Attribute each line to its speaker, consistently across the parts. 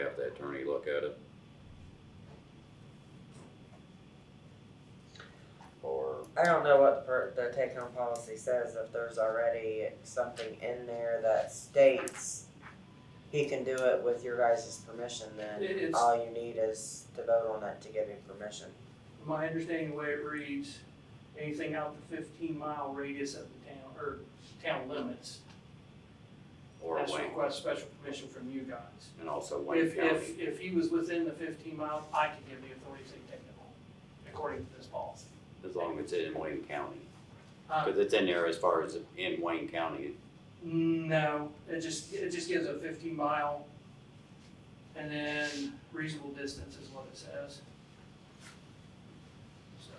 Speaker 1: have the attorney look at it. Or,
Speaker 2: I don't know what the per- the take home policy says, if there's already something in there that states he can do it with your guys' permission, then
Speaker 3: It is,
Speaker 2: all you need is to vote on it to give him permission.
Speaker 3: my understanding, the way it reads, anything out the fifteen mile radius of the town, or town limits,
Speaker 1: or
Speaker 3: has to
Speaker 1: Wayne,
Speaker 3: request special permission from you guys.
Speaker 1: and also Wayne
Speaker 3: If,
Speaker 1: County.
Speaker 3: if, if he was within the fifteen miles, I could give the authority to take him home, according to this policy.
Speaker 1: as long as it's in Wayne County.
Speaker 3: Uh,
Speaker 1: Because it's in there as far as in Wayne County.
Speaker 3: No, it just, it just gives a fifteen mile and then reasonable distance is what it says. So,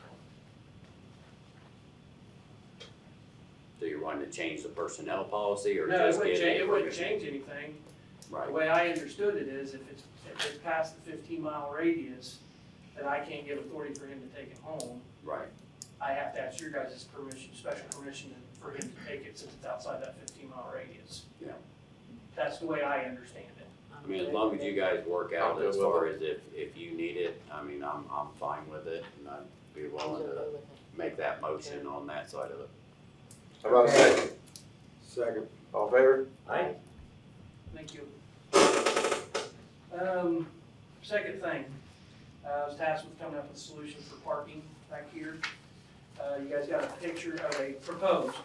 Speaker 1: So you're wanting to change the personnel policy or
Speaker 3: No, it
Speaker 1: just
Speaker 3: wouldn't
Speaker 1: get
Speaker 3: change,
Speaker 1: a
Speaker 3: it wouldn't
Speaker 1: permission?
Speaker 3: change anything. The
Speaker 1: Right,
Speaker 3: way I understood it is if it's, if it's past the fifteen mile radius, then I can't give authority for him to take it home.
Speaker 1: right.
Speaker 3: I have to ask your guys' permission, special permission to- for him to take it since it's outside that fifteen mile radius.
Speaker 1: Yeah.
Speaker 3: That's the way I understand it.
Speaker 1: I mean, as long as you guys work
Speaker 4: I'm
Speaker 1: out
Speaker 4: good
Speaker 1: as
Speaker 4: with
Speaker 1: far as if, if you need it, I mean, I'm, I'm fine with it and I'd be willing to make that motion on that side of it.
Speaker 4: How about a second? Second. All in favor?
Speaker 2: Aye.
Speaker 3: Thank you. Um, second thing, uh, I was tasked with coming up with a solution for parking back here. Uh, you guys got a picture of a proposed,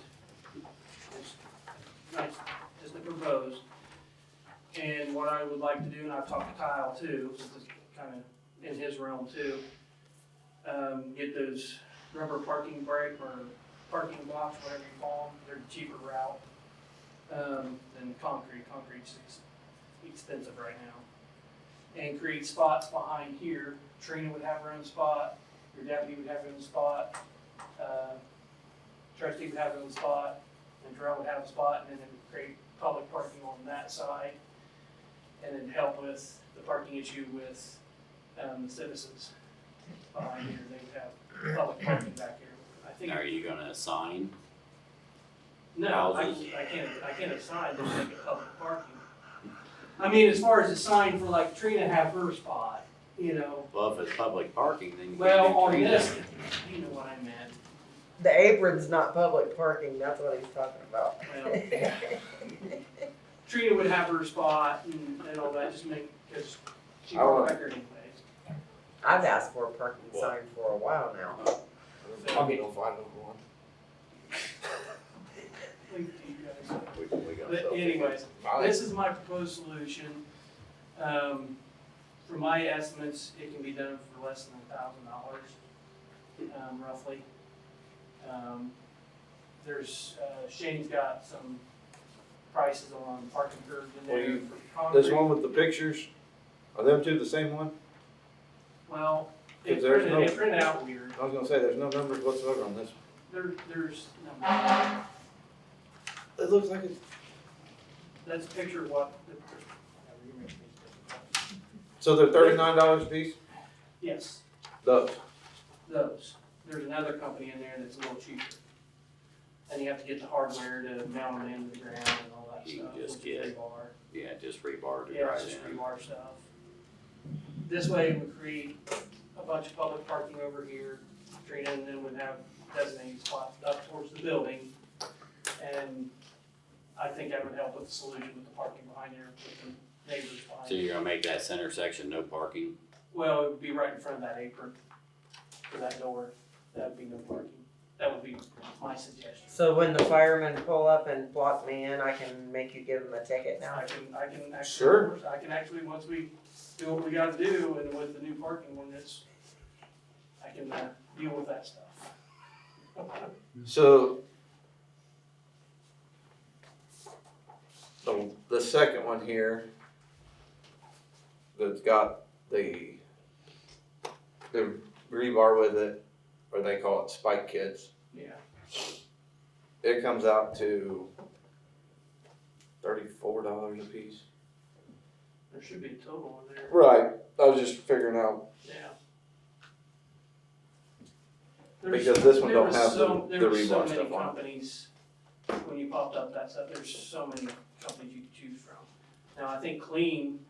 Speaker 3: it's nice, just a proposed. And what I would like to do, and I've talked to Kyle too, since it's kind of in his realm too, um, get those rubber parking brake or parking blocks, whatever you call them, they're the cheaper route um, than concrete. Concrete's ex- expensive right now. And create spots behind here. Trina would have her own spot. Your deputy would have her own spot. Uh, trustee would have her own spot. And Darrell would have a spot, and then it would create public parking on that side. And then help with the parking issue with um, the citizens behind here. They would have public parking back here. I think.
Speaker 1: Now, are you gonna assign?
Speaker 3: No, I,
Speaker 1: Houses.
Speaker 3: I can't, I can't assign, just make it public parking. I mean, as far as a sign for like Trina have her spot, you know,
Speaker 1: Well, if it's public parking, then you
Speaker 3: well,
Speaker 1: can't do
Speaker 3: on
Speaker 1: three
Speaker 3: this,
Speaker 1: different-
Speaker 3: you know what I meant.
Speaker 2: The apron's not public parking, that's what he's talking about.
Speaker 3: Well, Trina would have her spot and, and all that, just make, cause she
Speaker 4: I
Speaker 3: won't
Speaker 4: want-
Speaker 3: record anyways.
Speaker 2: I've asked for a parking sign for a while now.
Speaker 4: I'll get no five number one.
Speaker 3: Like, you guys-
Speaker 1: We, we got
Speaker 3: But
Speaker 1: something.
Speaker 3: anyways,
Speaker 4: Molly?
Speaker 3: This is my proposed solution. Um, from my estimates, it can be done for less than a thousand dollars, um, roughly. Um, there's, uh, Shane's got some prices on parking curves in
Speaker 4: Well,
Speaker 3: there
Speaker 4: you-
Speaker 3: for concrete.
Speaker 4: This one with the pictures, are them two the same one?
Speaker 3: Well, it
Speaker 4: Is there's
Speaker 3: printed,
Speaker 4: no-
Speaker 3: it printed out weird.
Speaker 4: I was gonna say, there's no numbers whatsoever on this.
Speaker 3: There, there's, no,
Speaker 4: It looks like it's.
Speaker 3: that's a picture of what. the-
Speaker 4: So they're thirty-nine dollars a piece?
Speaker 3: Yes.
Speaker 4: Those.
Speaker 3: those. There's another company in there that's a little cheaper. And you have to get the hardware to mount them into the ground and all that
Speaker 1: You
Speaker 3: stuff.
Speaker 1: can just
Speaker 3: which is
Speaker 1: get
Speaker 3: rebar.
Speaker 1: Yeah, just rebar to
Speaker 3: Yeah, it's
Speaker 1: drive
Speaker 3: just
Speaker 1: in.
Speaker 3: rebar stuff. This way it would create a bunch of public parking over here, Trina, and then would have designated spots up towards the building. And I think that would help with the solution with the parking behind there, with the neighbors behind.
Speaker 1: So you're gonna make that center section no parking?
Speaker 3: Well, it would be right in front of that apron, or that door, that would be no parking, that would be my suggestion.
Speaker 2: So when the firemen pull up and block me in, I can make you give them a ticket
Speaker 3: Now,
Speaker 2: now?
Speaker 3: I can, I can actually.
Speaker 4: Sure.
Speaker 3: I can actually, once we do what we gotta do, and with the new parking ordinance, I can, uh, deal with that stuff.
Speaker 4: So. The, the second one here. That's got the. The rebar with it, or they call it spike kits.
Speaker 3: Yeah,
Speaker 4: It comes out to. Thirty-four dollars a piece.
Speaker 3: there should be a total in there,
Speaker 4: Right, I was just figuring out,
Speaker 3: yeah. There's-
Speaker 4: because this one
Speaker 3: There
Speaker 4: don't
Speaker 3: was
Speaker 4: have the,
Speaker 3: so,
Speaker 4: the
Speaker 3: there were so
Speaker 4: rebar
Speaker 3: many
Speaker 4: stuff on it.
Speaker 3: companies, when you popped up that stuff, there's so many companies you could choose from. Now, I think Clean